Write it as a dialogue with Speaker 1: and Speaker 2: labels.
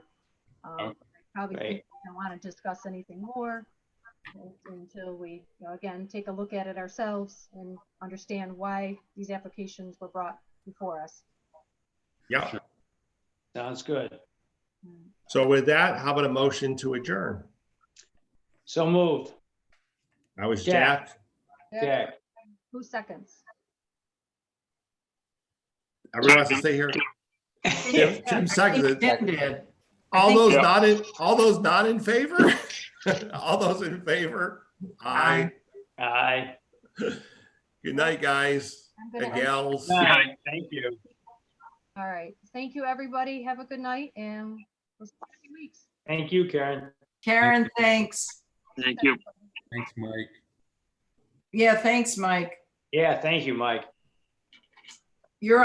Speaker 1: Um, I Probably
Speaker 2: Right.
Speaker 1: think we don't want to discuss anything more until we, you know, again, take a look at it ourselves and understand why these applications were brought before us.
Speaker 3: Yeah.
Speaker 4: Sounds good.
Speaker 3: So with that, how about a motion to adjourn?
Speaker 4: So moved.
Speaker 3: I was
Speaker 4: Jack.
Speaker 3: Jack.
Speaker 4: Jack,
Speaker 1: Who seconds?
Speaker 3: Everyone has to stay here. Tim Tim seconded. it. All
Speaker 5: think-
Speaker 3: those not in, all those not in favor? All those in favor? Aye.
Speaker 4: aye.
Speaker 3: Good night, guys
Speaker 1: I'm
Speaker 3: and
Speaker 1: gonna,
Speaker 3: gals.
Speaker 4: Aye. Thank you.
Speaker 1: all right. Thank you, everybody. Have a good night and we'll see you in two weeks.
Speaker 4: Thank you, Karen.
Speaker 5: Karen, thanks.
Speaker 6: Thank you.
Speaker 7: Thanks, Mike.
Speaker 5: Yeah, thanks, Mike.
Speaker 4: Yeah, thank you, Mike.